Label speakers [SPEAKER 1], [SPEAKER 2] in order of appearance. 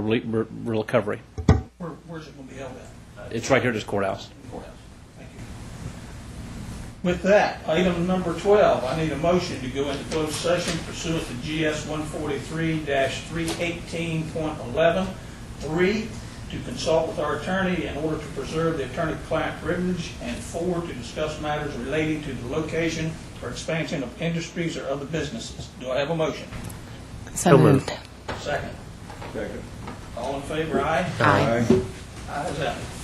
[SPEAKER 1] re- re- recovery.
[SPEAKER 2] Where, where's it gonna be held at?
[SPEAKER 1] It's right here at this courthouse.
[SPEAKER 2] Courthouse. Thank you. With that, item number twelve, I need a motion to go into closed session pursuant to GS one forty-three three eighteen point eleven, three, to consult with our attorney in order to preserve the attorney-client privilege, and four, to discuss matters relating to the location or expansion of industries or other businesses. Do I have a motion?
[SPEAKER 3] So moved.
[SPEAKER 2] Second. Second. All in favor, aye?
[SPEAKER 3] Aye.
[SPEAKER 2] Ayes have it.